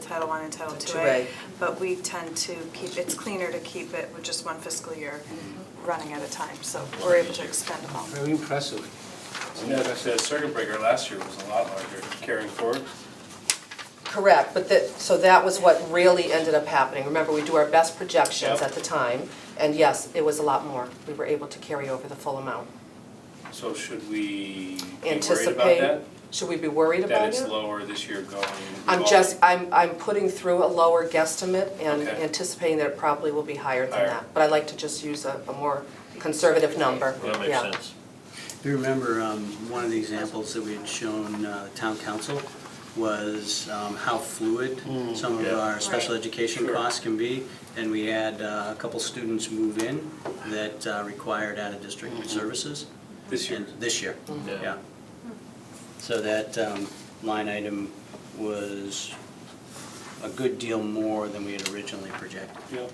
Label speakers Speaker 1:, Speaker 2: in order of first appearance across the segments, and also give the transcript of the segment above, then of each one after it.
Speaker 1: Title One and Title Two
Speaker 2: 2A.
Speaker 1: A. But we tend to keep, it's cleaner to keep it with just one fiscal year running at a time, so we're able to expend them all.
Speaker 3: Very impressive.
Speaker 4: And that, that circuit breaker last year was a lot larger carrying forward.
Speaker 2: Correct, but that, so that was what really ended up happening. Remember, we do our best projections
Speaker 4: Yep.
Speaker 2: at the time, and yes, it was a lot more. We were able to carry over the full amount.
Speaker 4: So should we be worried
Speaker 2: Anticipate?
Speaker 4: about that?
Speaker 2: Should we be worried about it?
Speaker 4: That it's lower this year going?
Speaker 2: I'm just, I'm, I'm putting through a lower guesstimate and
Speaker 4: Okay.
Speaker 2: anticipating that it probably will be higher than
Speaker 4: Higher.
Speaker 2: that. But I like to just use a, a more conservative number, yeah.
Speaker 5: That makes sense.
Speaker 3: You remember, um, one of the examples that we had shown, uh, town council was, um, how fluid some of
Speaker 5: yeah.
Speaker 3: our special
Speaker 6: Right.
Speaker 3: education
Speaker 4: Sure.
Speaker 3: costs can be. And we had, uh, a couple students move in that uh, required out-of-district services.
Speaker 4: This year?
Speaker 3: And This year,
Speaker 4: Mm.
Speaker 5: Yeah.
Speaker 3: yeah. So that, um, line item was a good deal more than we had originally projected.
Speaker 4: Yep.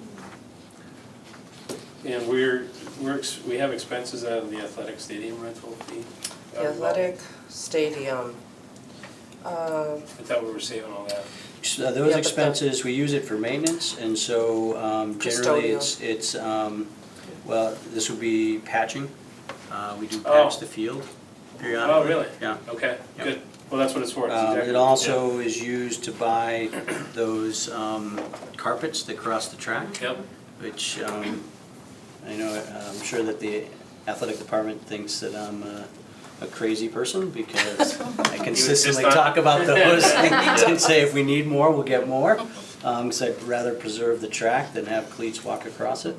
Speaker 4: And we're, we're, ex- we have expenses out of the athletic stadium rental fee.
Speaker 2: The Athletic stadium. Uh,
Speaker 4: I thought we were saving all that.
Speaker 3: So
Speaker 2: Yeah, but
Speaker 3: uh, those
Speaker 2: the-
Speaker 3: expenses, we use it for maintenance, and so um, generally, it's, it's, um, well, this would be patching. Uh, We do patch
Speaker 4: Oh.
Speaker 3: the field periodically.
Speaker 4: Oh, really?
Speaker 3: Yeah.
Speaker 4: Okay,
Speaker 3: Yeah.
Speaker 4: good. Well, that's what it's for. It's
Speaker 3: Um,
Speaker 4: exactly-
Speaker 3: It also is used to buy those um, carpets that cross the track,
Speaker 4: Yep,
Speaker 3: which um, I know, uh, I'm sure that the athletic department thinks that I'm uh, a crazy person because I consistently
Speaker 4: on-
Speaker 3: talk about those things and say if we need more, we'll get more. Because I'd rather preserve the track than have cleats walk across it.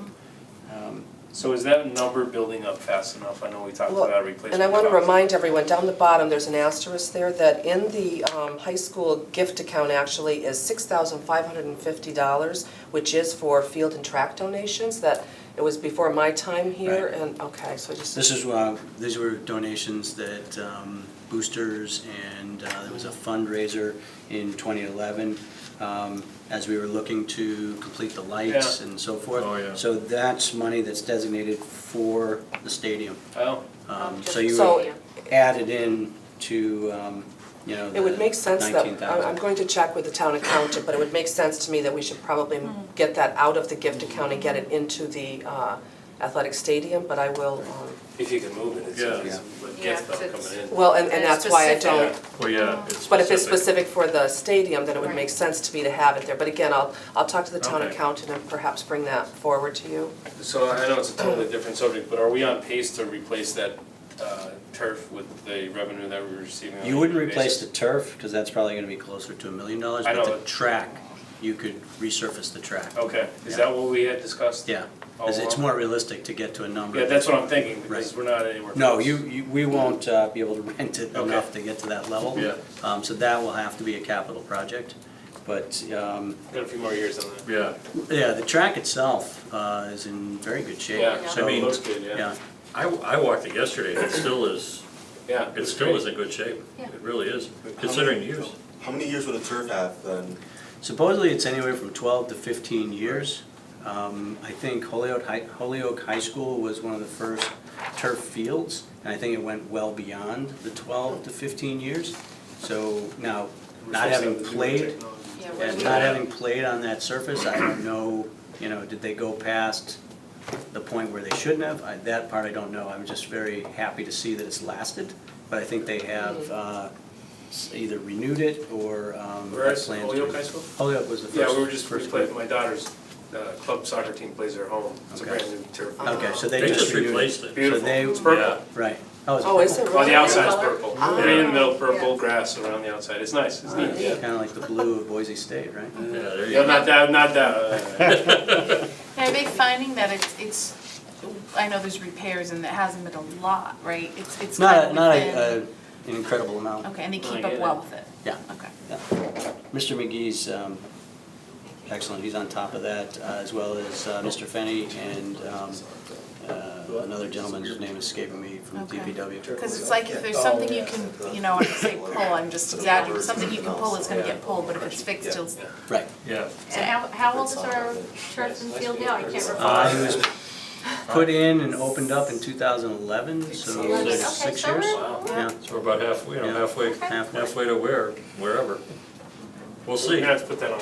Speaker 3: Um,
Speaker 4: so is that number building up fast enough? I know we talked
Speaker 2: Well,
Speaker 4: about replacement.
Speaker 2: And I want to
Speaker 4: costs.
Speaker 2: remind everyone, down the bottom, there's an asterisk there, that in the um, high school gift account actually is $6,550, which is for field and track donations, that it was before my time here,
Speaker 3: Right.
Speaker 2: and, okay, so just.
Speaker 3: This is, uh, these were donations that um, boosters and uh, there was a fundraiser in 2011 um, as we were looking to complete the lights
Speaker 4: Yeah.
Speaker 3: and so forth.
Speaker 5: Oh, yeah.
Speaker 3: So that's money that's designated for the stadium.
Speaker 4: Oh,
Speaker 3: Um, So
Speaker 6: Just-
Speaker 3: you
Speaker 2: So-
Speaker 3: would add it in to, um, you know,
Speaker 2: It would make sense that, I'm- I'm
Speaker 3: 19,000.
Speaker 2: going to check with the town accountant, but it would make sense to me that we should probably get that out of the gift account and get it into the uh, athletic stadium, but I will, um,
Speaker 4: if you can move it, it's,
Speaker 5: Yeah.
Speaker 4: it's, it
Speaker 6: Yeah,
Speaker 4: gets them
Speaker 6: 'cause it's-
Speaker 4: coming in.
Speaker 2: well, and, and
Speaker 6: And
Speaker 2: that's why I
Speaker 6: specific.
Speaker 2: don't,
Speaker 5: Well, yeah, it's
Speaker 2: but if it's specific for the stadium, then it would
Speaker 6: Right.
Speaker 2: make sense to me to have it there. But again, I'll, I'll talk to the town
Speaker 4: Okay.
Speaker 2: accountant and perhaps bring that forward to you.
Speaker 4: So I know it's a totally different subject, but are we on pace to replace that uh, turf with the revenue that we're receiving? on a
Speaker 3: You wouldn't
Speaker 4: yearly
Speaker 3: replace
Speaker 4: basis?
Speaker 3: the turf because that's probably going to be closer to a million dollars.
Speaker 4: I know
Speaker 3: But the
Speaker 4: it.
Speaker 3: track, you could resurface the track.
Speaker 4: Okay, is
Speaker 3: Yeah.
Speaker 4: that what we had discussed?
Speaker 3: Yeah,
Speaker 4: all
Speaker 3: 'cause it's
Speaker 4: along?
Speaker 3: more realistic to get to a number.
Speaker 4: Oh, Yeah, that's what I'm thinking, because
Speaker 3: Right.
Speaker 4: we're not anywhere.
Speaker 3: No,
Speaker 4: close.
Speaker 3: you, you, we won't uh, be able to rent it
Speaker 4: Okay.
Speaker 3: enough to get to that level.
Speaker 5: Yeah.
Speaker 3: Um, So that will have to be a capital project. But, um,
Speaker 4: Got a few more years on that.
Speaker 5: Yeah,
Speaker 3: yeah, the track itself uh, is in very good shape.
Speaker 4: Yeah,
Speaker 3: So,
Speaker 4: I mean, looks good, yeah.
Speaker 3: Yeah,
Speaker 5: I, I walked it yesterday, and it still is,
Speaker 4: Yeah.
Speaker 5: it still is in good shape.
Speaker 6: Yeah.
Speaker 5: It really is, considering the use.
Speaker 7: How many years would a turf have then?
Speaker 3: supposedly it's anywhere from 12 to 15 years. Um, I think Holyoke High, Holyoke High School was one of the first turf fields, and I think it went well beyond the 12 to 15 years. So now,
Speaker 4: We're supposed to
Speaker 3: not having
Speaker 4: have the newer
Speaker 3: played,
Speaker 4: technology.
Speaker 6: Yeah, we're-
Speaker 3: And not having played on that surface, I don't know, you know, did they go past the point where they shouldn't have? I- That part I don't know. I'm just very happy to see that it's lasted, but I think they have uh, s- either renewed it or um,
Speaker 4: Where
Speaker 3: have
Speaker 4: is
Speaker 3: plans to.
Speaker 4: Holyoke High School?
Speaker 3: Holyoke was the first.
Speaker 4: Yeah, we were just, we
Speaker 3: first
Speaker 4: played,
Speaker 3: group.
Speaker 4: my daughter's uh, club soccer team plays their home. It's a
Speaker 3: Okay.
Speaker 4: brand new turf.
Speaker 3: Okay, so they
Speaker 5: They
Speaker 3: just
Speaker 5: just
Speaker 3: renewed it.
Speaker 5: replaced it.
Speaker 3: So they-
Speaker 4: Beautiful, it's purple.
Speaker 5: Yeah.
Speaker 3: Right.
Speaker 2: Oh, is it
Speaker 4: Well,
Speaker 2: really?
Speaker 4: the outside's
Speaker 6: Color?
Speaker 4: purple. Right in the middle, purple grass around the outside. It's nice, it's neat, yeah.
Speaker 3: Kind of like the blue of Boise State, right?
Speaker 5: Yeah, there you
Speaker 4: Yeah,
Speaker 5: go.
Speaker 4: not that, uh, not that.
Speaker 6: Are they finding that it's, it's, I know there's repairs and it hasn't been a lot, right? It's, it's kind
Speaker 3: Not,
Speaker 6: of
Speaker 3: a- not
Speaker 6: within-
Speaker 3: a- a- an incredible amount.
Speaker 6: Okay, and they
Speaker 4: Oh,
Speaker 6: keep
Speaker 4: yeah.
Speaker 6: up well with it?
Speaker 3: Yeah.
Speaker 6: Okay.
Speaker 3: Mr. McGee's um, excellent, he's on top of that, uh, as well as uh, Mr. Fenny and um, uh, another gentleman whose name is escaping me from
Speaker 6: Okay.
Speaker 3: DPW.
Speaker 6: Because it's like if there's something you can, you know, I say Oh, pull, I'm just exaggerating, something you can pull is gonna get pulled, but if it's fixed, it'll.
Speaker 3: Right.
Speaker 5: Yeah.
Speaker 8: And how, how old is our turf and field now? I can't
Speaker 3: Uh, He
Speaker 8: recall.
Speaker 3: was put in and opened up in 2011, so it was
Speaker 5: Six.
Speaker 3: six
Speaker 8: Okay,
Speaker 3: years.
Speaker 8: so
Speaker 3: Yeah,
Speaker 5: So we're about halfway, you know,
Speaker 3: Yeah.
Speaker 5: halfway,
Speaker 3: halfway.
Speaker 5: halfway to where, wherever.
Speaker 4: We're
Speaker 5: We'll see.
Speaker 4: gonna have to put that on